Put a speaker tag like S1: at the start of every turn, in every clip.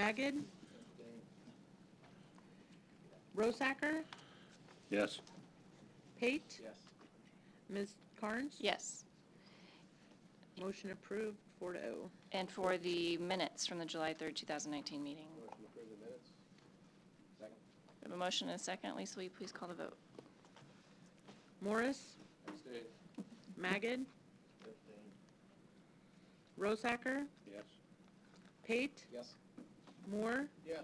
S1: Magid? Rosacker?
S2: Yes.
S1: Pate?
S3: Yes.
S1: Ms. Carnes?
S4: Yes.
S1: Motion approved, four to oh.
S4: And for the minutes from the July 3rd, 2019 meeting.
S3: Motion to approve the minutes? Second?
S4: We have a motion and a second. Lisa, will you please call the vote?
S1: Morris?
S3: Abstain.
S1: Magid? Rosacker?
S2: Yes.
S1: Pate?
S3: Yes.
S1: Moore?
S3: Yes.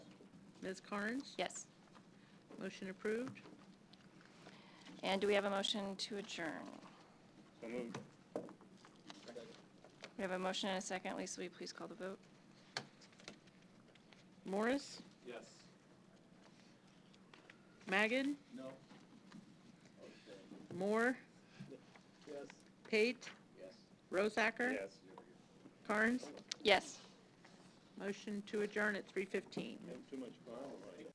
S1: Ms. Carnes?
S4: Yes.
S1: Motion approved.
S4: And do we have a motion to adjourn?
S2: So moved.
S3: Second?
S4: We have a motion and a second. Lisa, will you please call the vote?
S1: Morris?
S3: Yes.
S1: Magid?
S3: No. Abstain.
S1: Moore?
S3: Yes.
S1: Pate?
S3: Yes.
S1: Rosacker?
S2: Yes.
S1: Carnes?
S4: Yes.
S1: Motion to adjourn at three fifteen.
S3: Too much power, right?